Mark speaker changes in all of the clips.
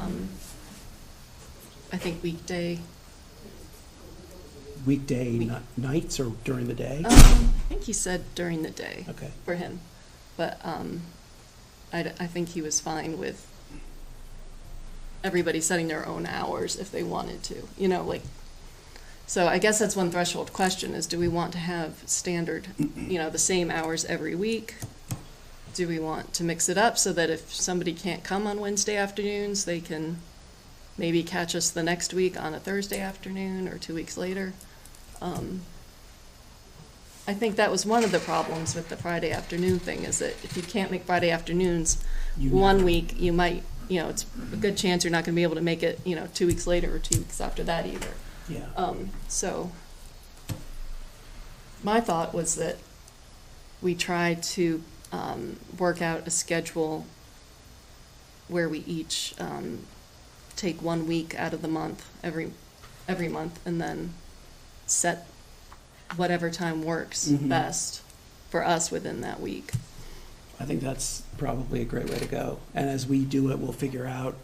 Speaker 1: Um, I think weekday,
Speaker 2: Weekday
Speaker 1: Week-
Speaker 2: ni- nights or during the day?
Speaker 1: um, I think he said during the day
Speaker 2: Okay,
Speaker 1: for him. But, um, I, d- I think he was fine with everybody setting their own hours if they wanted to, you know, like, so I guess that's one threshold question is do we want to have standard, you know, the same hours every week? Do we want to mix it up so that if somebody can't come on Wednesday afternoons, they can maybe catch us the next week on a Thursday afternoon or two weeks later? Um, I think that was one of the problems with the Friday afternoon thing is that if you can't make Friday afternoons,
Speaker 2: You-
Speaker 1: one week, you might, you know, it's a good chance you're not going to be able to make it, you know, two weeks later or two weeks after that either.
Speaker 2: yeah.
Speaker 1: Um, so, my thought was that we try to um, work out a schedule where we each um, take one week out of the month every every month, and then set whatever time works
Speaker 2: Mhm.
Speaker 1: best for us within that week.
Speaker 2: I think that's probably a great way to go. And as we do it, we'll figure out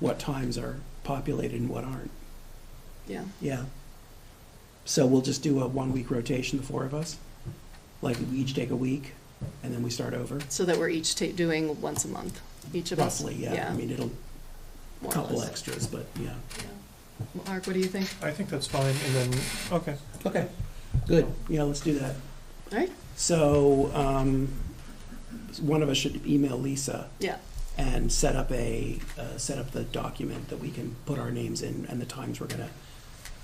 Speaker 2: what times are populated and what aren't.
Speaker 1: Yeah.
Speaker 2: Yeah. So we'll just do a one-week rotation, the four of us? Like, we each take a week, and then we start over?
Speaker 1: So that we're each ta- doing once a month, each of
Speaker 2: Roughly,
Speaker 1: us.
Speaker 2: yeah. I mean, it'll, a
Speaker 1: more or
Speaker 2: couple
Speaker 1: less.
Speaker 2: extras, but, yeah.
Speaker 1: Yeah. Mark, what do you think?
Speaker 3: I think that's fine, and then, okay.
Speaker 2: Okay, good. Yeah, let's do that.
Speaker 1: All right.
Speaker 2: So, um, one of us should email Lisa.
Speaker 1: Yeah.
Speaker 2: And set up a, uh, set up the document that we can put our names in and the times we're gonna,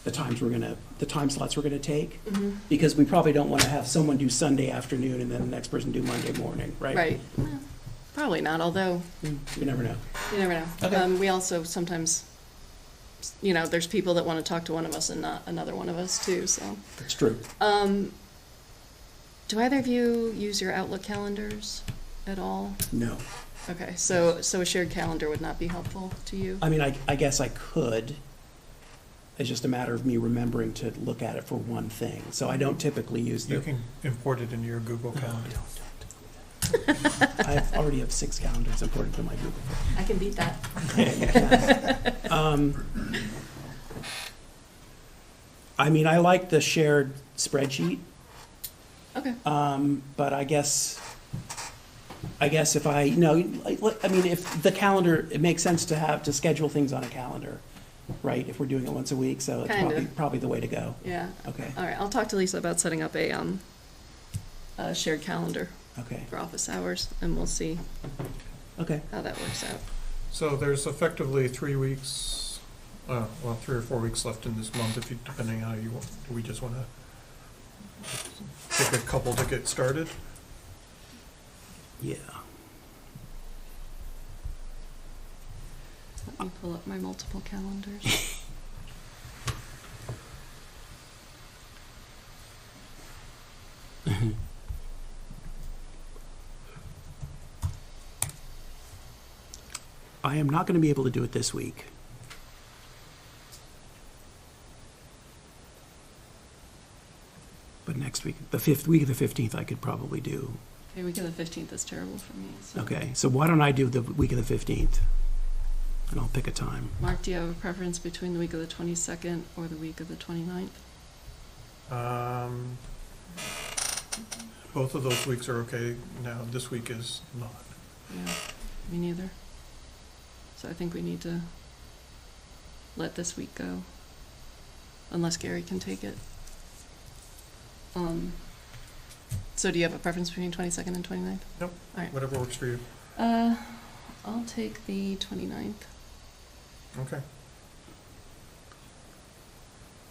Speaker 2: the times we're gonna, the time slots we're gonna take.
Speaker 1: Mm-hmm.
Speaker 2: Because we probably don't wanna have someone do Sunday afternoon and then the next person do Monday morning, right? Mm,
Speaker 1: Right. Well, Probably not, although,
Speaker 2: You never know.
Speaker 1: you never know.
Speaker 2: Okay.
Speaker 1: Um, we also sometimes, you know, there's people that want to talk to one of us and not another one of us too, so.
Speaker 2: It's true.
Speaker 1: Um, do either of you use your Outlook calendars at all?
Speaker 2: No.
Speaker 1: Okay, so, so a shared calendar would not be helpful to you?
Speaker 2: I mean, I, I guess I could. It's just a matter of me remembering to look at it for one thing. So I don't typically use the.
Speaker 3: You can import it into your Google
Speaker 2: No,
Speaker 3: Calendar.
Speaker 2: don't, don't, don't do that. I already have six calendars imported to my Google.
Speaker 1: I can beat that.
Speaker 2: Um, I mean, I like the shared spreadsheet,
Speaker 1: Okay,
Speaker 2: um, but I guess, I guess if I, no, like, like, I mean, if the calendar, it makes sense to have, to schedule things on a calendar, right? If we're doing it once a week, so it's
Speaker 1: Kinda.
Speaker 2: probably, probably the way to go.
Speaker 1: yeah.
Speaker 2: Okay,
Speaker 1: All right, I'll talk to Lisa about setting up a, um, a shared calendar
Speaker 2: okay,
Speaker 1: for office hours, and we'll see
Speaker 2: okay.
Speaker 1: how that works out.
Speaker 3: So there's effectively three weeks, uh, well, three or four weeks left in this month, if you, depending how you, want- do we just wanna pick a couple to get started?
Speaker 2: Yeah.
Speaker 1: Let me pull up my multiple calendars.
Speaker 2: I am not gonna be able to do it this week. But next week, the fifth, week of the fifteenth, I could probably do.
Speaker 1: Okay, week of the fifteenth is terrible for me, so.
Speaker 2: Okay, so why don't I do the week of the fifteenth? And I'll pick a time.
Speaker 1: Mark, do you have a preference between the week of the twenty-second or the week of the twenty-ninth?
Speaker 3: Um, both of those weeks are okay, now this week is not.
Speaker 1: Yeah, me neither. So I think we need to let this week go, unless Gary can take it. Um, so do you have a preference between twenty-second and twenty-ninth?
Speaker 3: Whatever works for you,
Speaker 1: Uh, I'll take the twenty-ninth.
Speaker 3: okay.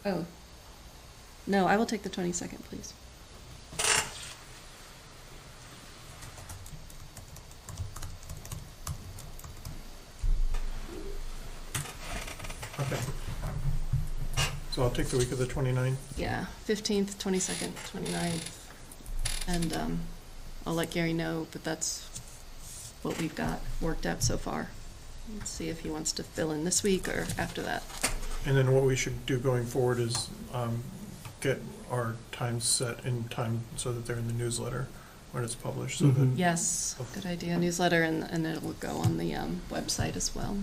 Speaker 1: Oh. No, I will take the twenty-second, please.
Speaker 3: Okay. So I'll take the week of the 29th.
Speaker 1: Yeah, fifteenth, twenty-second, twenty-ninth, and, um, I'll let Gary know, but that's what we've got worked out so far. Let's see if he wants to fill in this week or after that.
Speaker 3: And then what we should do going forward is um, get our times set in time so that they're in the newsletter when it's
Speaker 1: Mm-hmm.
Speaker 3: published, so that,
Speaker 2: Mhm.
Speaker 1: Yes, good idea, newsletter, and, and it'll go on the, um, website as well.